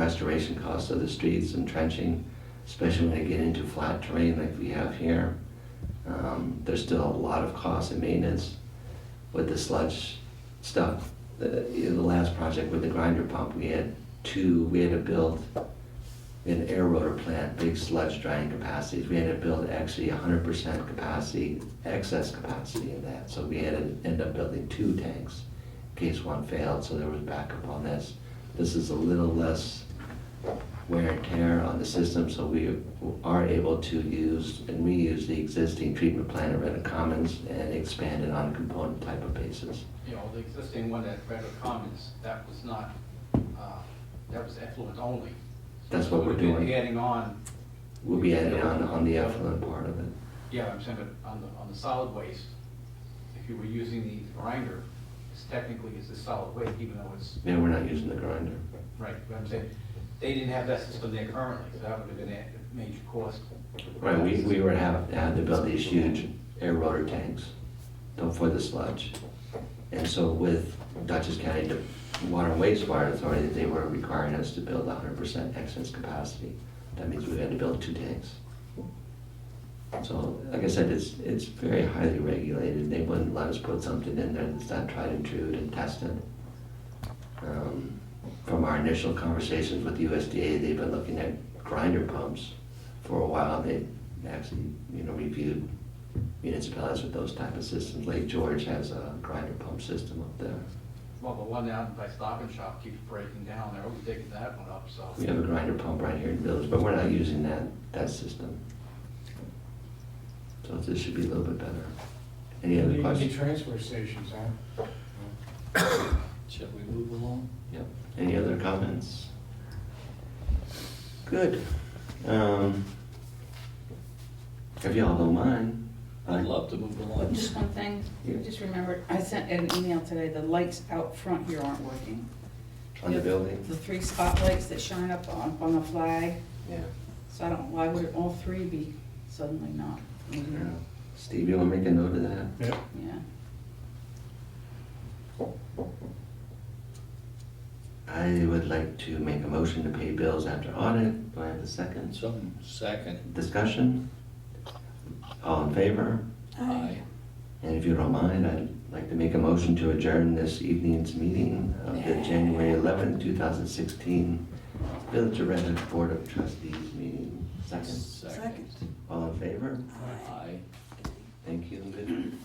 restoration costs of the streets and trenching, especially when they get into flat terrain like we have here. Um, There's still a lot of cost and maintenance with the sludge stuff. The, you know, the last project with the grinder pump, we had two, we had to build an air rotor plant, big sludge drying capacities. We had to build actually hundred percent capacity, excess capacity in that. So we had to end up building two tanks in case one failed, so there was backup on this. This is a little less wear and tear on the system, so we are able to use and reuse the existing treatment plant at Redwood Commons and expand it on a component type of basis. You know, the existing one at Redwood Commons, that was not, uh, that was effluent only. That's what we're We've been doing. Adding on, We'll be adding on, on the effluent part of it. yeah, I'm saying, but on the, on the solid waste, if you were using the grinder, it's technically it's a solid waste, even though it's, Yeah, we're not using the grinder. right, but I'm saying, they didn't have that system there currently, so that would have been a major cost. Right, we, we were have, had to build these huge air rotor tanks for the sludge. And so with Dutchess County De- Water and Wastewater Authority, they were requiring us to build hundred percent excess capacity. That means we had to build two tanks. So, like I said, it's, it's very highly regulated, they wouldn't let us put something in there that's not tried and true and tested. Um, From our initial conversations with USDA, they've been looking at grinder pumps for a while, they actually, you know, reviewed municipalities with those type of systems. Lake George has a grinder pump system up there. Well, the one down by Stop and Shop keeps breaking down, they're always digging that one up, so. We have a grinder pump right here in Village, but we're not using that, that system. So this should be a little bit better. Any other Need- Need questions? transfer stations, huh? Shall we move along? Yep. Any other comments? Good. Um, If y'all don't mind. I- I'd love to move along. Just one thing, Yeah. I just remembered, I sent an email today, the lights out front here aren't working. On the building? The three spotlights that shine up on, on the flag, Yeah. so I don't, why would all three be suddenly not? Yeah, Steve, you wanna make a note of that? Yep. I would like to make a motion to pay bills after audit. Do I have a second? Some second, Discussion? All in favor? aye. And if you don't mind, I'd like to make a motion to adjourn this evening's meeting of the January eleventh, two thousand sixteen Village of Red Hook Board of Trustees meeting. Second? Second, All in favor? aye. Thank you and good night.